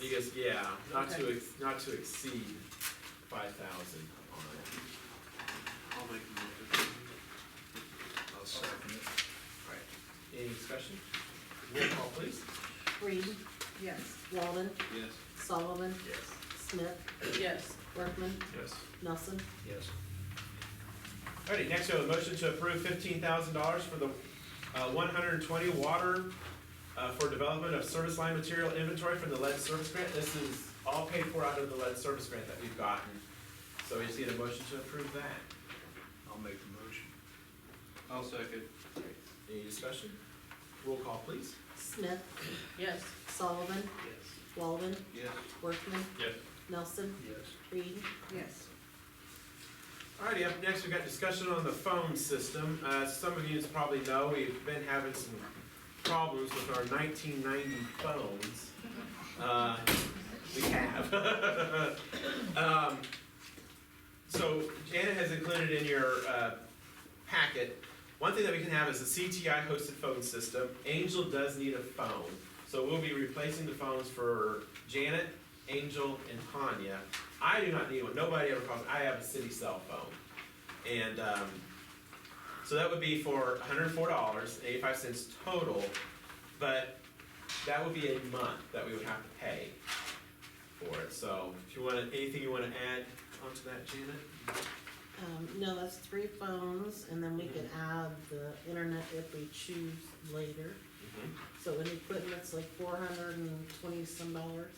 Because, yeah, not to, Okay. ex- not to exceed five thousand on it. I'll make a motion. I'll second it. Alright. Any discussion? Roll call please. Reed, Yes. Walden, Yes. Sullivan, Yes. Smith, Yes. Workman, Yes. Nelson. Yes. Alrighty, next we have a motion to approve fifteen thousand dollars for the, uh, one hundred and twenty water, uh, for development of service line material inventory from the lead service grant. This is all paid for out of the lead service grant that we've gotten. So we just need a motion to approve that. I'll make the motion. I'll second. Any discussion? Roll call please. Smith, Yes. Sullivan, Yes. Walden, Yes. Workman, Yes. Nelson, Yes. Reed, Yes. Alrighty, up next, we've got discussion on the phone system. Uh, some of you probably know, we've been having some problems with our nineteen ninety phones. Uh, we have. Um, so Janet has included in your, uh, packet, one thing that we can have is a CTI hosted phone system. Angel does need a phone, so we'll be replacing the phones for Janet, Angel, and Tanya. I do not need one. Nobody ever calls. I have a city cell phone, and um, so that would be for one hundred four dollars eighty five cents total. But that would be a month that we would have to pay for it. So if you want to, anything you want to add onto that, Janet? um, no, that's three phones, and then we can add the internet if we choose later. So in equipment's like four hundred and twenty some dollars.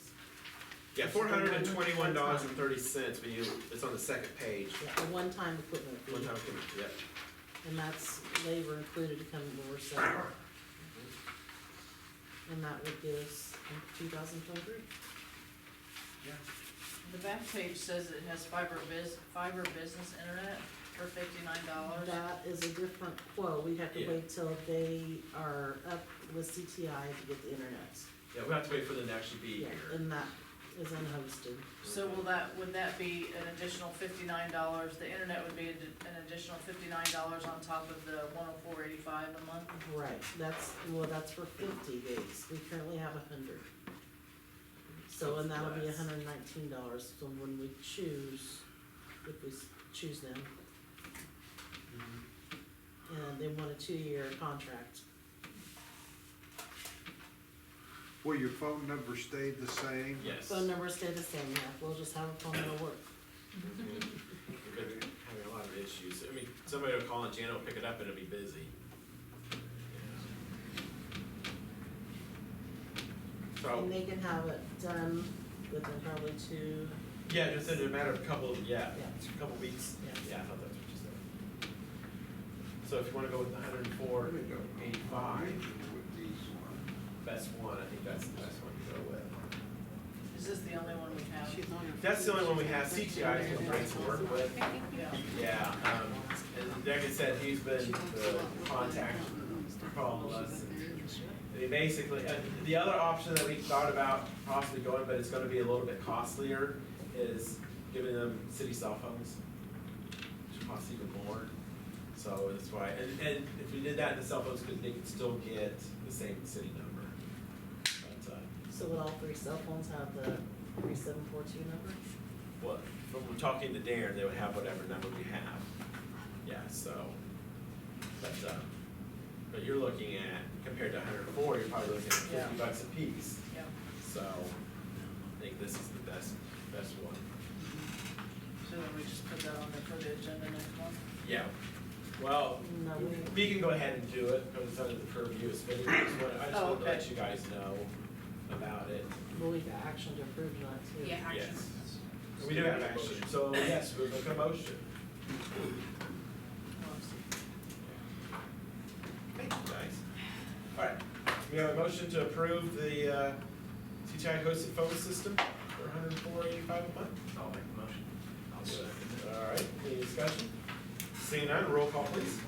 Yeah, four hundred and twenty one dollars and thirty cents. But you, it's on the second page. Yeah, a one-time equipment One fee, time, payment, yeah. and that's labor included to come to our center. And that would give us um, two thousand twenty-three. The back page says it has fiber biz, fiber business internet for fifty-nine dollars. That is a different quote, we have to Yeah. wait till they are up with CTI to get the internet. Yeah, we have to wait for them to actually be Yeah, here. and that is unhosted. So will that, would that be an additional fifty-nine dollars? The internet would be an an additional fifty-nine dollars on top of the one oh four eighty-five a month? Right, that's, well, that's for fifty days, we currently have a hundred. So, and that'll be Less. hundred and nineteen dollars, so when we choose, if we s- choose them, and they want a two-year contract, Will your phone number stay the same? Yes. phone numbers stay the same, yeah, we'll just have a phone that'll work. We've been having a lot of issues. I mean, somebody will call and Janet will pick it up and it'll be busy. And So, they can have it done within probably two, yeah, just in a matter of a couple, yeah, Yeah. it's a couple weeks. yeah. Yeah, I thought that's what you said. So if you wanna go with the hundred and four, eighty-five, With these best one, I think that's the best one to go with. Is this the only one we have? That's the only one we have. CTI is what Frank's work with. Yeah. Yeah, um, and like I said, he's been the contact call us. I mean, basically, uh, the other option that we thought about possibly going, but it's gonna be a little bit costlier, is giving them city cell phones. Which costs even more, so that's why, and, and if we did that, the cell phones could, they could still get the same city number. But, uh, So would all three cell phones have the three seven four two number? Well, from we're talking to Darren, they would have whatever number we have. Yeah, so, but, uh, but you're looking at, compared to hundred and four, you're probably looking at fifty Yeah. bucks a piece. Yeah. So, I think this is the best, best one. So then we just put that on there for the agenda next month? Yeah. Well, No, we, we can go ahead and do it, because it's under the purview of spending, I just wanna, I just Oh, wanted to okay. let you guys know about it. well, we got action to approve tonight too. Yeah, action. Yes. We do have action, so yes, we'll make a motion. Thank you, guys. All right, we have a motion to approve the uh, CTI hosted phone system for $104.85 a month? I'll make the motion. I'll second. All right, any discussion? Seeing none, roll call please.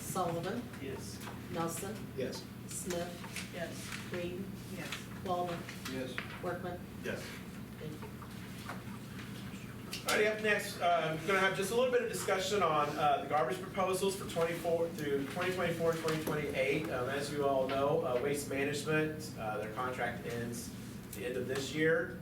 Sullivan, Yes. Nelson, Yes. Smith, Yes. Reed, Yes. Walden, Yes. Workman, Yes. thank you. All right, up next, uh, we're gonna have just a little bit of discussion on, uh, the garbage proposals for twenty-four through 2024, 2028. Um, as you all know, uh, Waste Management, uh, their contract ends the end of this year.